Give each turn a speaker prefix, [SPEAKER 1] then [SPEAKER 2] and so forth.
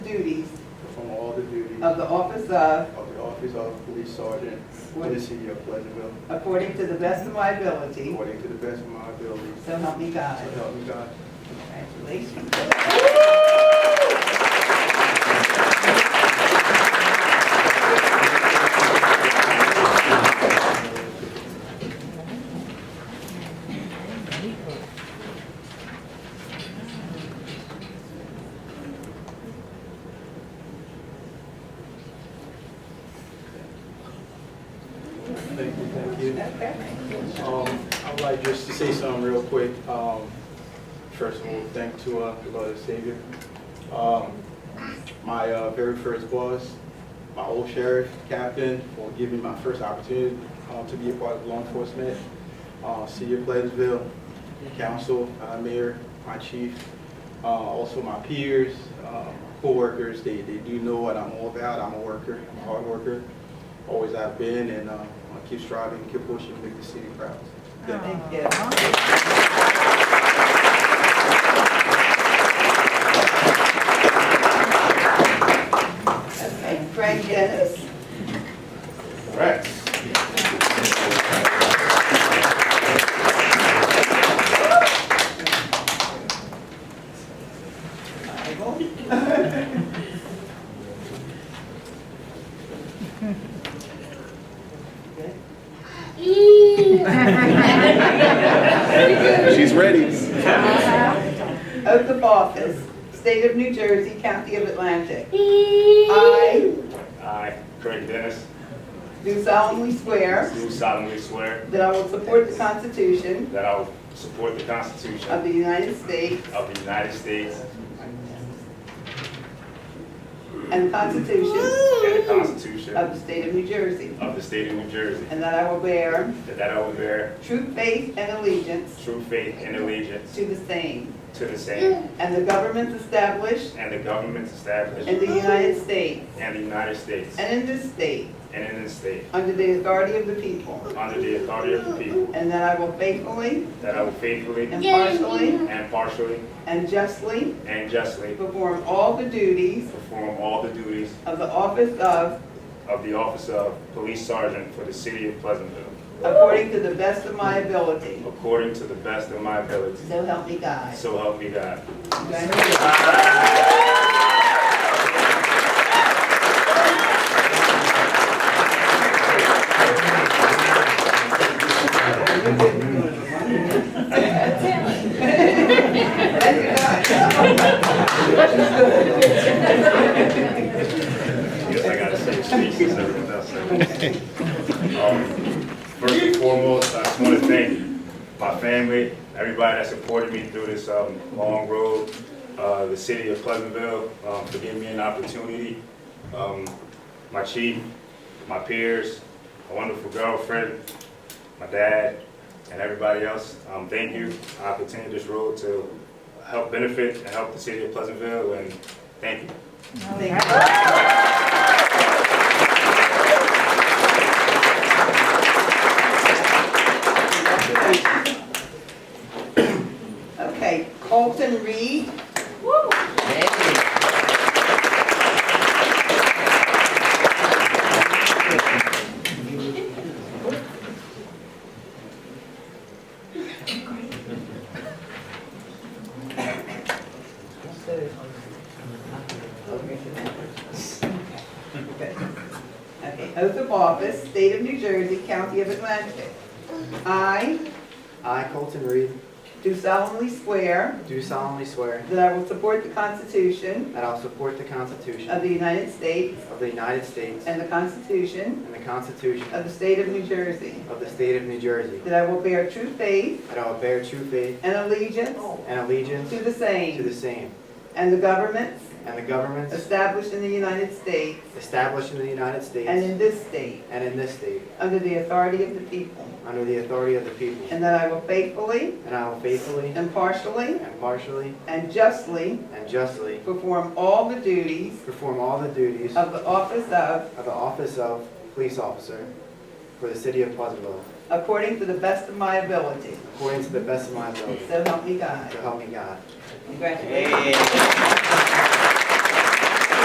[SPEAKER 1] of the office of,
[SPEAKER 2] of the office of police sergeant for the city of Pleasantville,
[SPEAKER 1] according to the best of my ability,
[SPEAKER 2] according to the best of my ability.
[SPEAKER 1] so help me God.
[SPEAKER 2] So help me God.
[SPEAKER 1] Congratulations.
[SPEAKER 2] Thank you, thank you. Um, I'd like just to say something real quick. Um, first of all, thank to uh, the Lord and Savior. Um, my uh, very first boss, my old sheriff, captain, for giving me my first opportunity uh, to be a part of law enforcement. Uh, City of Pleasantville, council, uh, mayor, my chief, uh, also my peers, uh, coworkers. They they do know what I'm all about. I'm a worker, I'm a hard worker, always have been, and uh, I keep striving, keep pushing, make the city proud. Thank you.
[SPEAKER 1] Thank you. Okay, Frank Dennis.
[SPEAKER 2] Right.
[SPEAKER 1] Bible. Good.
[SPEAKER 3] She's ready.
[SPEAKER 1] Oath of office, State of New Jersey, County of Atlantic. I
[SPEAKER 4] I, Craig Dennis,
[SPEAKER 1] do solemnly swear
[SPEAKER 4] do solemnly swear
[SPEAKER 1] that I will support the Constitution
[SPEAKER 4] that I will support the
[SPEAKER 1] of
[SPEAKER 4] Constitution
[SPEAKER 1] the United States
[SPEAKER 4] of the United States
[SPEAKER 1] and the Constitution
[SPEAKER 4] and the Constitution
[SPEAKER 1] of the
[SPEAKER 4] of
[SPEAKER 1] State of New Jersey,
[SPEAKER 4] the State of New Jersey,
[SPEAKER 1] and that I will bear
[SPEAKER 4] and that I will bear
[SPEAKER 1] true faith and allegiance
[SPEAKER 4] true faith and allegiance
[SPEAKER 1] to the same,
[SPEAKER 4] to the same
[SPEAKER 1] and the governments established
[SPEAKER 4] and the governments
[SPEAKER 1] in
[SPEAKER 4] established
[SPEAKER 1] the United States
[SPEAKER 4] in the United States
[SPEAKER 1] and in this state,
[SPEAKER 4] and in this state,
[SPEAKER 1] under the authority of the people,
[SPEAKER 4] under the authority of the people,
[SPEAKER 1] and that I will faithfully,
[SPEAKER 4] that I will faithfully,
[SPEAKER 1] impartially,
[SPEAKER 4] and partially,
[SPEAKER 1] and justly
[SPEAKER 4] and justly
[SPEAKER 1] perform all the duties
[SPEAKER 4] perform all the duties
[SPEAKER 1] of the office of,
[SPEAKER 4] of the office of Police Sergeant for the City of Pleasantville,
[SPEAKER 1] according to the best of my ability.
[SPEAKER 4] according to the best of my ability.
[SPEAKER 1] So help me God.
[SPEAKER 4] So help me God.
[SPEAKER 1] Congratulations.
[SPEAKER 4] Yes, I gotta say, speak since everyone else said. Um, First and foremost, I just wanna thank my family, everybody that supported me through this, um, long road, uh, the city of Pleasantville, um, for giving me an opportunity. Um, my chief, my peers, my wonderful girlfriend, my dad, and everybody else, um, thank you. I continue this road to help benefit and help the city of Pleasantville, and thank you.
[SPEAKER 1] Okay, Colton Reed. Okay, oath of office, State of New Jersey, County of Atlantic. I
[SPEAKER 2] I, Colton Reed,
[SPEAKER 1] do solemnly swear
[SPEAKER 2] do solemnly swear
[SPEAKER 1] that I will support the Constitution
[SPEAKER 2] that I will support the
[SPEAKER 1] of
[SPEAKER 2] Constitution
[SPEAKER 1] the United States
[SPEAKER 2] of the United States
[SPEAKER 1] and the Constitution
[SPEAKER 2] and the Constitution
[SPEAKER 1] of the State of New Jersey,
[SPEAKER 2] of the State of New Jersey,
[SPEAKER 1] that I will bear true faith
[SPEAKER 2] that I will bear true faith
[SPEAKER 1] and allegiance
[SPEAKER 2] and allegiance
[SPEAKER 1] to the
[SPEAKER 2] to the
[SPEAKER 1] same,
[SPEAKER 2] same,
[SPEAKER 1] and the governments
[SPEAKER 2] and the governments
[SPEAKER 1] established in the United States
[SPEAKER 2] established in the United
[SPEAKER 1] and
[SPEAKER 2] States
[SPEAKER 1] in this state,
[SPEAKER 2] and in this state,
[SPEAKER 1] under the authority of the people,
[SPEAKER 2] under the authority of the people,
[SPEAKER 1] and that I will faithfully,
[SPEAKER 2] and I will faithfully,
[SPEAKER 1] impartially,
[SPEAKER 2] impartially,
[SPEAKER 1] and justly
[SPEAKER 2] and justly
[SPEAKER 1] perform all the duties
[SPEAKER 2] perform all the duties
[SPEAKER 1] of the office of,
[SPEAKER 2] of the office of police officer for the city of Pleasantville,
[SPEAKER 1] according to the best of my ability.
[SPEAKER 2] according to the best of my ability.
[SPEAKER 1] So help me God.
[SPEAKER 2] So help me God.
[SPEAKER 1] Congratulations.